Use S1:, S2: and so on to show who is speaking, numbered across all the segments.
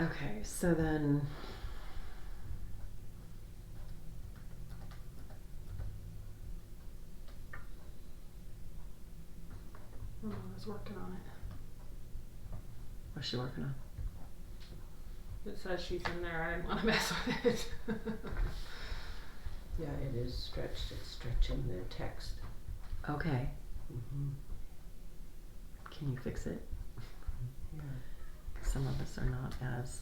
S1: Okay, so then.
S2: Oh, I was working on it.
S1: What's she working on?
S2: It says she's in there. I didn't want to mess with it.
S3: Yeah, it is stretched, it's stretching the text.
S1: Okay,
S3: Mm-hmm.
S1: can you fix it?
S3: Yeah.
S1: Some of us are not as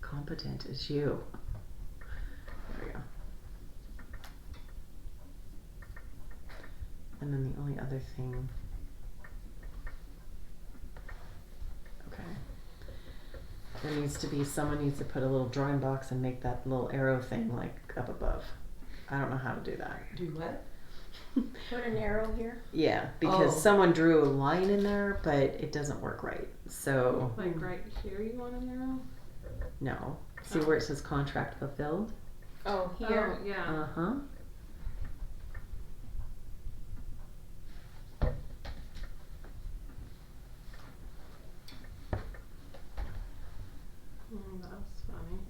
S1: competent as you. There we go. And then the only other thing. Okay. There needs to be someone needs to put a little drawing box and make that little arrow thing like up above. I don't know how to do that.
S3: Do what?
S4: Put an arrow here.
S1: Yeah, because
S3: Oh.
S1: someone drew a line in there, but it doesn't work right. So
S2: like right here, you want an arrow?
S1: no. See where it says contract fulfilled?
S3: Um,
S4: Oh, here.
S2: Oh, yeah.
S1: Uh huh.
S2: Mm, that was funny.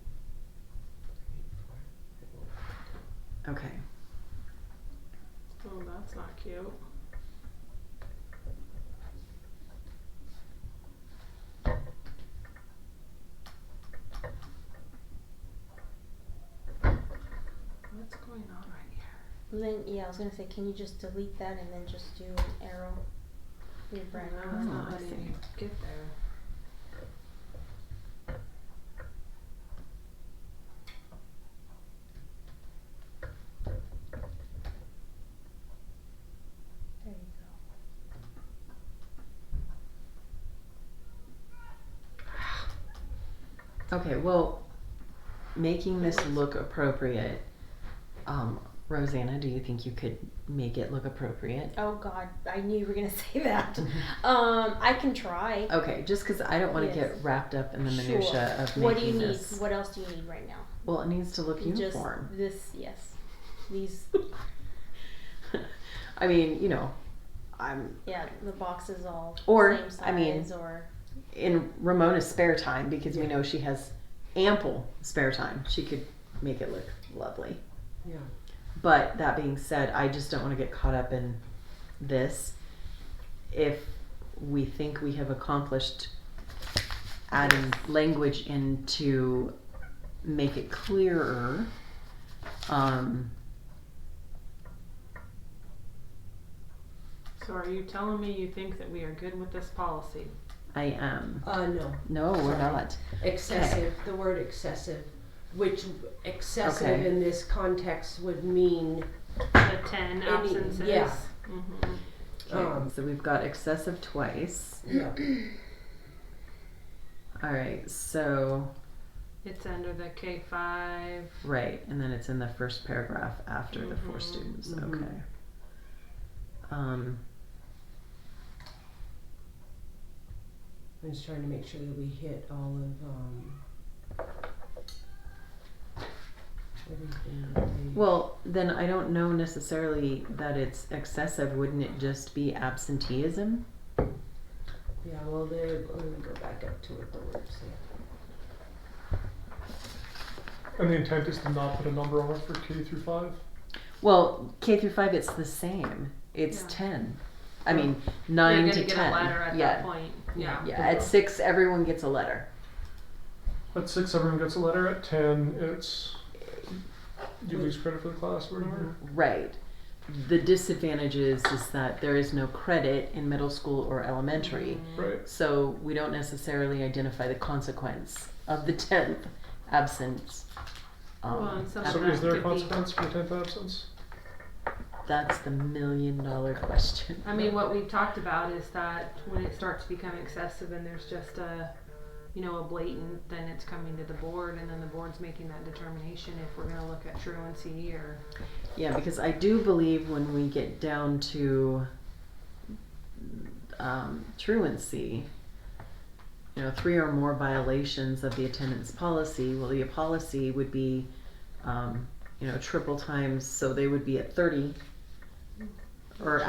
S1: Okay.
S2: Oh, that's not cute. What's going on right here?
S4: And then yeah, I was gonna say, can you just delete that and then just do an arrow? Your brand
S2: No,
S1: Oh,
S2: it's not
S1: I
S2: letting
S1: see.
S2: me get there.
S4: There you
S1: Okay, well, making this look appropriate, um, Rosanna, do you think you could make it look appropriate?
S4: go. Oh God, I knew you were gonna say that. um, I can try.
S1: Okay, just because I don't want to
S4: Yes.
S1: get wrapped up in Oh, the
S4: Sure.
S1: minutia of making
S4: What do you need?
S1: this.
S4: What else do you need right now?
S1: Well, it needs to look uniform.
S4: Just this, yes. These,
S1: I mean, you know, I'm
S4: yeah, the boxes all
S1: Or,
S4: same size
S1: I mean-
S4: or
S1: in Ramona's spare time because we know she has ample spare time. She could make it look lovely.
S3: Yeah.
S1: But that being said, I just don't want to get caught up in this. If we think we have accomplished adding language in to make it clearer, um,
S2: So are you telling me you think that we are good with this policy?
S1: I am.
S3: Uh, no,
S1: No, we're
S3: Sorry.
S1: not.
S3: excessive, the word excessive, which excessive
S1: Okay.
S3: in this context would mean,
S2: The ten
S3: Any-
S2: absences?
S3: yeah.
S2: Mm-hmm.
S1: Okay,
S3: um,
S1: so we've got excessive twice.
S3: yeah,
S1: All right, so
S2: It's under the K five.
S1: right, and then it's in the first paragraph after the four
S2: Mhm.
S1: students.
S3: Mhm.
S1: Okay. Um,
S3: I'm just trying to make sure that we hit all of, um, everything that we-
S1: Well, then I don't know necessarily that it's excessive. Wouldn't it just be absenteeism?
S3: yeah, well, there, let me go back up to it, the words, yeah.
S5: And the intent is to not put a number on it for K through five?
S1: Well, K through five, it's the same. It's
S2: Yeah.
S1: ten. I mean, 9
S2: You're
S1: to
S2: gonna
S1: ten.
S2: get a letter at
S1: yeah,
S2: that point. Yeah.
S1: yeah. At six, everyone gets a letter.
S5: At six, everyone gets a letter. At ten, it's you lose credit for the class or whatever.
S1: Right. The disadvantage is, is that there is no credit in middle school or elementary,
S2: Mm-hmm.
S5: Right.
S1: so we don't necessarily identify the consequence of the tenth absence. Um,
S2: Well, and some
S5: So
S2: that
S5: is there a
S2: could be-
S5: consequence for tenth absence?
S1: that's the million dollar question.
S2: I mean, what we've talked about is that when it starts to become excessive and there's just a, you know, a blatant, then it's coming to the board and then the board's making that determination if we're gonna look at truancy or.
S1: Yeah, because I do believe when we get down to um, truancy, you know, three or more violations of the attendance policy, well, the policy would be, um, you know, triple times, so they would be at 30 or